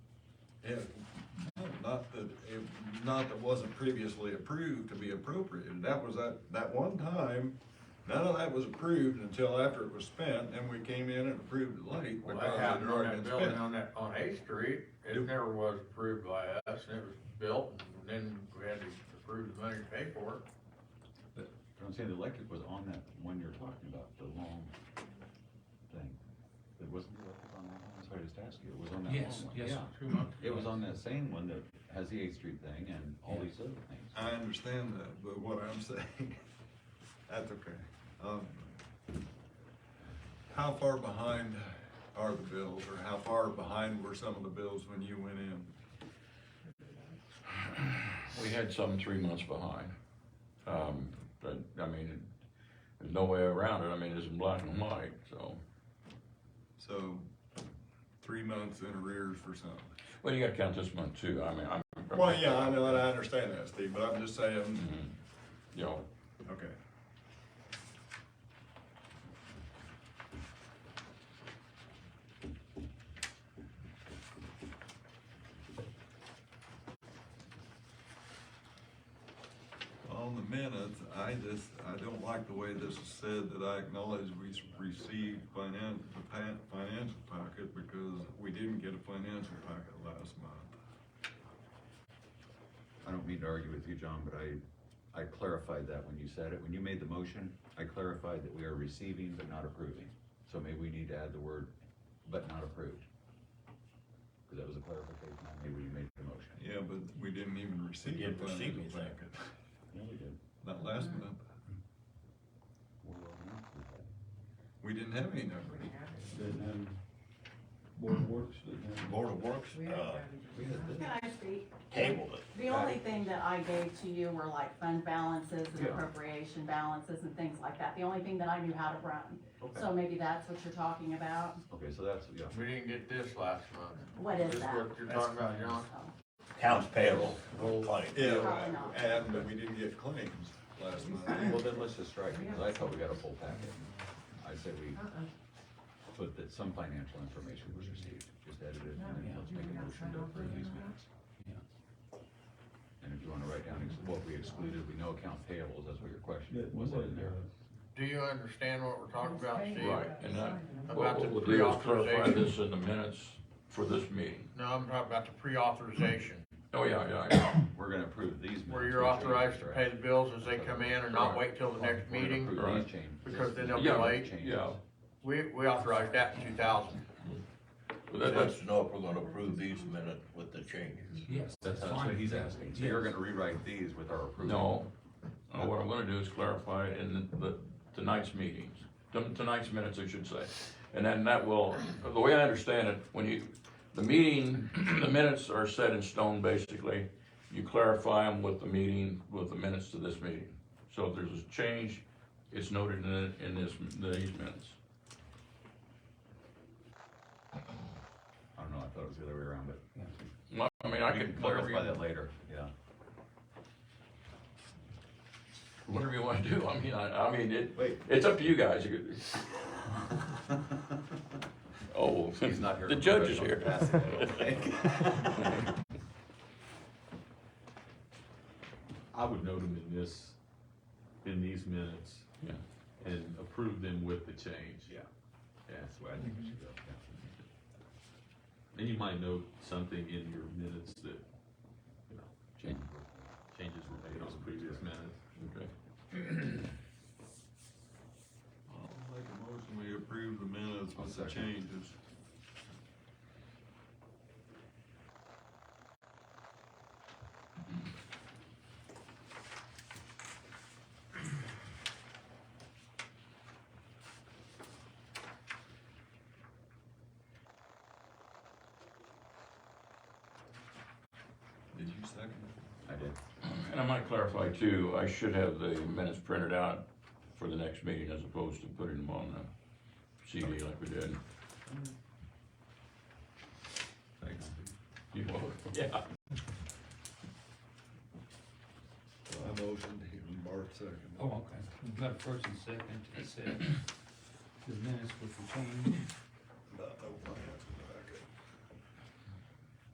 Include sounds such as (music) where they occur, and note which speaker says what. Speaker 1: if, not that, if, not that wasn't previously approved to be appropriated, that was that, that one time, none of that was approved until after it was spent, and we came in and approved it late
Speaker 2: Well,
Speaker 1: because
Speaker 2: that
Speaker 1: it had
Speaker 2: happened on
Speaker 1: already
Speaker 2: that
Speaker 1: been
Speaker 2: building
Speaker 1: spent.
Speaker 2: on that, on Eighth Street, it
Speaker 1: Yep.
Speaker 2: never was approved by us, and it was built, and then we had to approve the money to pay for it.
Speaker 3: But but I'm saying the electric was on that one you're talking about, the long thing. It wasn't the electric on that one? Sorry, I just asked you. It was on that long
Speaker 4: oh
Speaker 5: Yes,
Speaker 3: one.
Speaker 5: yes.
Speaker 3: Yeah.
Speaker 2: Two months.
Speaker 3: It was on that same one that has the Eighth Street thing and all these other things.
Speaker 1: (laughs) I understand that, but what I'm (laughs) saying, that's okay. Um, How far behind are the bills, or how far behind were some of the bills when you went in?
Speaker 4: We had some three months behind. Um, but, I mean, it- there's no way around it. I mean, it's in black and white, so.
Speaker 1: So, three months in arrears for something.
Speaker 4: Well, you gotta count this month too. I mean, I'm.
Speaker 1: Well, yeah, I know, and I understand that, Steve, but I'm just saying,
Speaker 4: Mhm. You know,
Speaker 1: okay. On the minutes, I just, I don't like the way this is said, that I acknowledge we s- received finan, the pa- financial packet, because we didn't get a financial packet last month.
Speaker 3: I don't mean to argue with you, John, but I, I clarified that when you said it. When you made the motion, I clarified that we are receiving but not approving. So maybe we need to add the word, but not approved. Cause that was a clarification I made when you made the motion.
Speaker 1: Yeah, but we didn't even receive
Speaker 2: didn't
Speaker 1: the
Speaker 2: receive
Speaker 1: financial
Speaker 2: anything.
Speaker 1: packet,
Speaker 3: Yeah, we did.
Speaker 1: not last month,
Speaker 3: Well, yeah.
Speaker 1: we didn't have any numbers.
Speaker 6: Didn't have Board of Works, didn't have.
Speaker 7: Board of Works,
Speaker 8: We
Speaker 7: uh,
Speaker 3: We had this.
Speaker 9: Can I speak?
Speaker 7: tabled it.
Speaker 9: The only thing that I gave to you were like fund balances and
Speaker 3: Yeah.
Speaker 9: appropriation balances and things like that. The only thing that I knew how to run.
Speaker 3: Okay,
Speaker 9: So maybe that's what you're talking about.
Speaker 3: okay, so that's, yeah.
Speaker 2: We didn't get this last month.
Speaker 9: What is
Speaker 2: This
Speaker 9: that? Oh.
Speaker 2: what you're talking about, John?
Speaker 9: So,
Speaker 7: Towns payable, claim.
Speaker 1: Yeah,
Speaker 9: Probably not.
Speaker 1: and that we didn't get claims last month. (laughs)
Speaker 3: Well, then let's just strike it, because I thought we got a full packet. I said we put that some financial information was received, just edit it, and then let's make a motion to approve these minutes. And if you wanna write down ex- what we excluded, we know account payables, that's what your question
Speaker 6: Didn't-
Speaker 3: was, in there?
Speaker 2: Do you understand what we're talking about, Steve?
Speaker 4: right, and that,
Speaker 2: About
Speaker 4: what
Speaker 2: the
Speaker 4: what we'll do is clarify
Speaker 2: pre-authorization.
Speaker 4: this in the minutes for this meeting.
Speaker 2: No, I'm talking about the pre-authorization,
Speaker 4: Oh, yeah, yeah, yeah.
Speaker 3: We're gonna approve these minutes.
Speaker 2: where you're
Speaker 3: which are-
Speaker 2: authorized to pay the bills as they come in and not wait till the
Speaker 3: We're
Speaker 2: next
Speaker 3: gonna
Speaker 2: meeting.
Speaker 3: approve these
Speaker 4: Right.
Speaker 3: changes.
Speaker 2: because then they'll be
Speaker 4: Yeah,
Speaker 2: late.
Speaker 3: Changes.
Speaker 4: Yeah,
Speaker 2: We, we authorized that in two thousand.
Speaker 4: But
Speaker 7: He
Speaker 4: that-
Speaker 7: wants
Speaker 4: that's,
Speaker 7: to know if we're gonna approve these minutes with the changes.
Speaker 5: Yes.
Speaker 3: That's that's what he's asking, so you're gonna rewrite these with our approval?
Speaker 4: no. Uh, What I'm gonna do is clarify it in the- the, tonight's meetings, Ton- tonight's minutes, I should say. And then that will, the way I understand it, when you, the meeting, (clears throat) the minutes are set in stone, basically. You clarify them with the meeting, with the minutes to this meeting. So if there's a change, it's noted in, in this, these minutes.
Speaker 3: I don't know, I thought it was the other way around, but.
Speaker 4: Well, I mean, I
Speaker 3: We
Speaker 4: could,
Speaker 3: Clarify
Speaker 4: whatever
Speaker 3: that later, yeah.
Speaker 4: you, whatever you wanna do, I mean, I, I mean, it,
Speaker 3: Wait.
Speaker 4: it's up to you guys. You could- Oh,
Speaker 3: He's not here.
Speaker 4: the
Speaker 3: for
Speaker 4: judge is here.
Speaker 3: professional capacity, I don't think.
Speaker 6: (laughs) I would note them in this, in these minutes
Speaker 4: Yeah.
Speaker 6: and approve them with the change.
Speaker 3: Yeah.
Speaker 6: Yeah.
Speaker 3: That's the way I think it should go.
Speaker 6: And you might note something in your minutes that, you know,
Speaker 3: Change.
Speaker 6: changes were made on previous minutes.
Speaker 4: (laughs) Okay.
Speaker 1: I'll make a motion, we approve the minutes with the
Speaker 3: I'll second.
Speaker 1: changes. Did you second?
Speaker 3: I did.
Speaker 4: And I might clarify too, I should have the minutes printed out for the next meeting as opposed to putting them on the CD like we did.
Speaker 3: Thanks.
Speaker 4: You will, yeah.
Speaker 1: I motioned, and Bart seconded.
Speaker 5: Oh, okay. We've got a first and second to accept the minutes with the change.
Speaker 1: Oh, Not no plans.